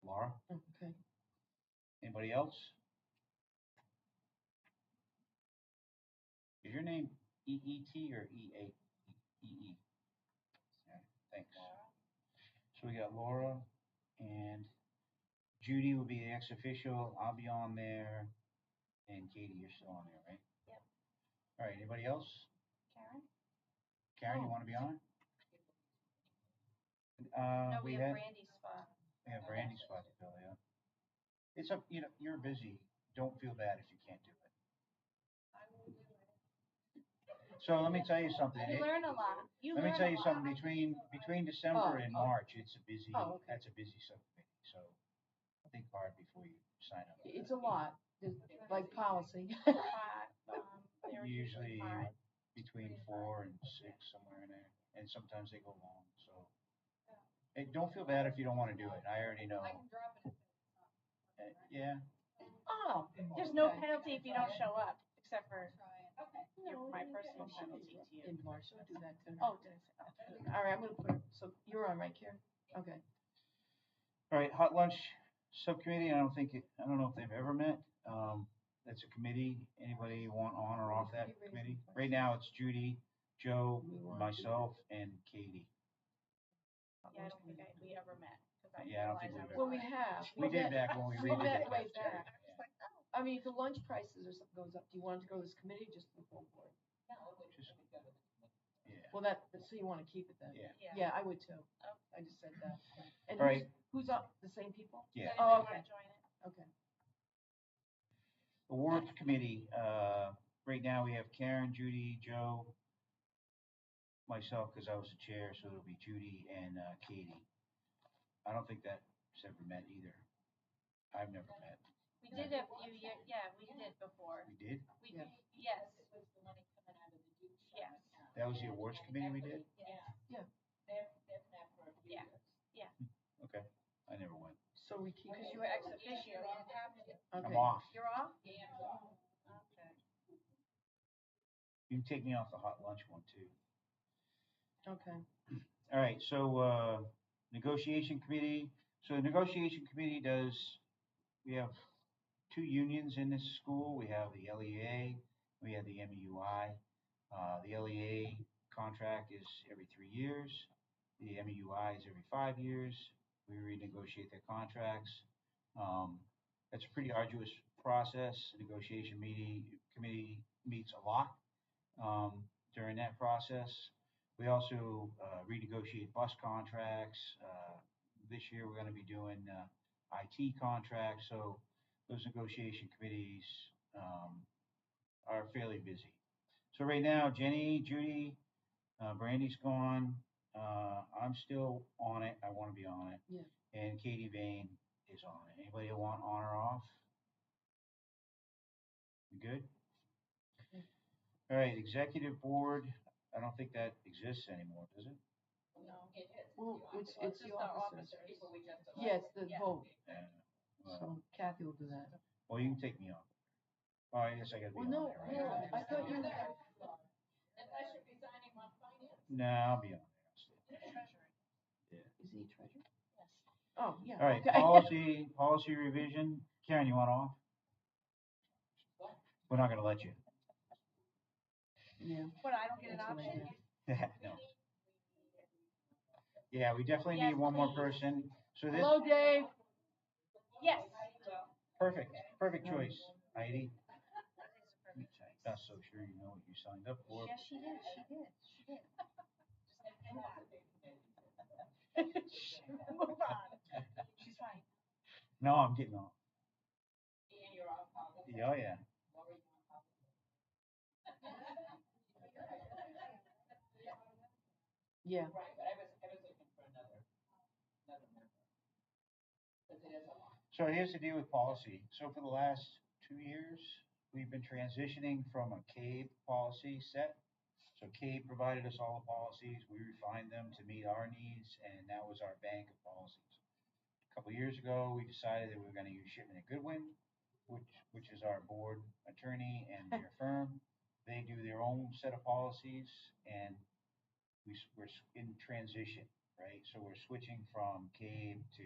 tomorrow. Okay. Anybody else? Is your name EET or E EA? EE? Okay, E? Thanks. So we got Laura and Judy will be the ex official. I'll be on there. And Katie, you're still on there, right? Yep. All right, anybody else? Karen? Karen, you Oh. want to be on Uh, it? Uh, No, we have had, Brandy's spot. we have Randy's spot to fill, yeah. It's up, you know, you're busy. Don't feel bad if you can't do it. So let me tell you something. You it- learn a lot. You Let me learn a tell you lot. something, between, between December Oh, and oh. March, it's a busy, Oh, okay. that's a busy subcommittee, so think hard before you sign up. It's a lot, there's- like policy. Five, um, they were Usually uh, five. between Pretty four and six, somewhere in there, and sometimes they go long, so. Hey, don't feel bad if you don't wanna do it, I already know. Uh, Yeah, Oh. There's no okay. penalty if you don't show up, except for your- my personal penalty to you. In March, I'll do that too. Oh, did I say that? All right, I'm gonna put, her- so you're on right, Karen? Okay. All right, hot lunch subcommittee, I don't think, it- I don't know if they've ever met. Um, that's a committee. Anybody want on or off that committee? Right now, it's Judy, Joe, myself, and Katie. Yeah, I don't think I, we ever met. 'cause I Yeah, I don't think realized we've Well, we was- have. We did met- back when we we redid met the way cafeteria. back. oh, I mean, if the lunch prices or something goes up, do you want it to go to this committee or just the full board? Yeah, Well, that, so you wanna keep it then? yeah, Yeah. Oh. Yeah, I would too. I just said that. And All who's, right. who's up? The same people? yeah. So Oh, if you wanna join it, Okay. Awards committee, uh, right now, we have Karen, Judy, Joe, myself, because I was the chair, so it'll be Judy and uh, Katie. I don't think that's ever met either. I've never met. We did a few years, yeah, we did before. We did? We Yeah. did, yes. Yes. That was the awards committee we did? Yeah. Yeah. Yeah, Okay, I never went. So we keep, because you were ex officio. okay. I'm off. You're off? Okay. You can take me off the hot lunch one too. Okay. All right, so, uh, negotiation committee, so the negotiation committee does, we have two unions in this school, we have the LEA, we have the MEUI. Uh, the LEA contract is every three years, the MEUI is every five years, we renegotiate their contracts. Um, that's a pretty arduous process, The negotiation meeting, committee meets a lot, um, during that process. We also uh, renegotiate bus contracts. Uh, This year, we're going to be doing uh, IT contracts, so those negotiation committees um, are fairly busy. So right now, Jenny, Judy, uh, Brandy's gone. Uh, I'm still on it. I want to be on it. Yeah. And Katie Vane is on it. Anybody want on or off? You good? Okay. All right, executive board. I don't think that exists anymore, does it? No. Well, it's, it's the officers. Yes, Yes. the vote. Yeah. Well, So Kathy will do that. Uh, well, you can take me off. Oh, I guess I gotta be Well, on no, there, no, right? I thought you, No, I'll be on there. is he treasurer? Oh, yeah. All right, okay. policy, policy revision. Karen, you want off? We're not gonna let you. Yeah. But I don't get an That's what I option? do. No. Yeah, we definitely need Yes, one more please. person. So this, Hello, Dave. Yes. perfect, perfect Um, choice, Heidi. Not so sure you know what you signed up for. Yes, she did, she did, she did. Move on. She's fine. No, I'm getting off. Yeah, oh, yeah. Yeah. So here's the deal with policy. So for the last two years, we've been transitioning from a CABE policy set. So CABE provided us all the policies, we refined them to meet our needs, and that was our bank of policies. A couple years ago, we decided that we were gonna use Shipman and Goodwin, which, which is our board attorney and their firm. They do their own set of policies, and we, s- we're s- in transition, right? So we're switching from CABE to